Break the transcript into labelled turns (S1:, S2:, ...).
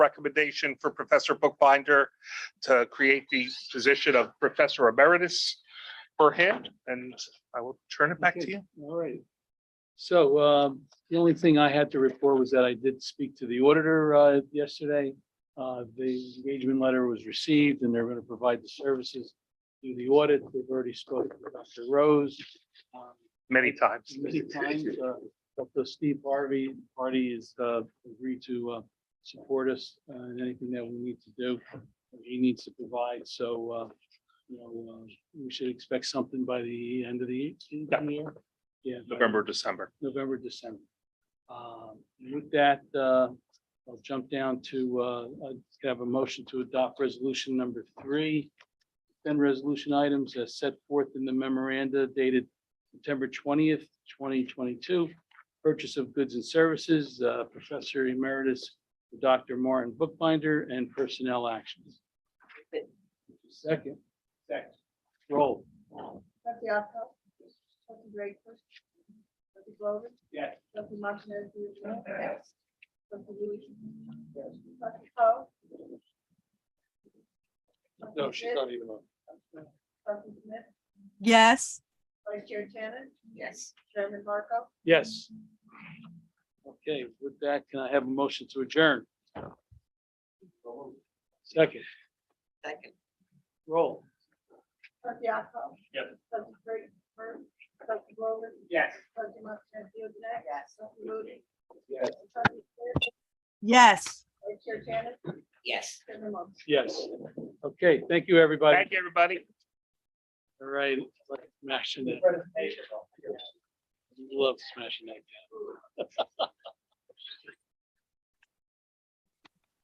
S1: recommendation for Professor Bookbinder to create the position of Professor Emeritus for him, and I will turn it back to
S2: Okay,
S1: you.
S2: All right. So um, the only thing I had to report was that I did speak to the auditor uh, yesterday. Uh, The engagement letter was received and they're going to provide the services through the audit. They've already spoken to Dr. Rose. um,
S1: Many times.
S2: Many times, uh, Dr. Steve Harvey, Hardy is uh, agreed to uh, support us uh, in anything that we need to do. He needs to provide, so uh, you know, uh, we should expect something by the end of the
S1: Yeah.
S2: year. Yeah. by
S1: November, December.
S2: November, December. Um, With that, uh, I'll jump down to, uh, I have a motion to adopt resolution number three. Then resolution items as set forth in the memoranda dated September twentieth, twenty twenty-two. Purchase of goods and services, uh, Professor Emeritus Dr. Martin Bookbinder and personnel actions. Second. Second. Roll.
S3: Trustee Alco. Trustee Drakeford. Trustee Glover.
S2: Yes.
S3: Trustee Martinez. Yes. Trustee Lewis. Yes. Trustee Poe.
S2: No, she's not even on.
S3: Trustee Smith.
S4: yes.
S3: Vice Chair Shannon. Yes. Chairman Marco.
S2: Yes. Okay, with that, can I have a motion to adjourn? Second,
S5: Second.
S2: roll.
S3: Trustee Alco.
S2: Yes.
S3: Trustee Drakeford. Trustee Glover.
S2: Yes.
S3: Trustee Martinez. Yes. Trustee Lewis.
S2: Yes.
S3: Trustee Smith.
S4: Yes.
S3: Vice Chair Shannon.
S5: Yes.
S3: Chairman Marco.
S2: Yes. Okay, thank you, everybody.
S1: Thank you, everybody.
S2: All right, like smashing it. Love smashing that.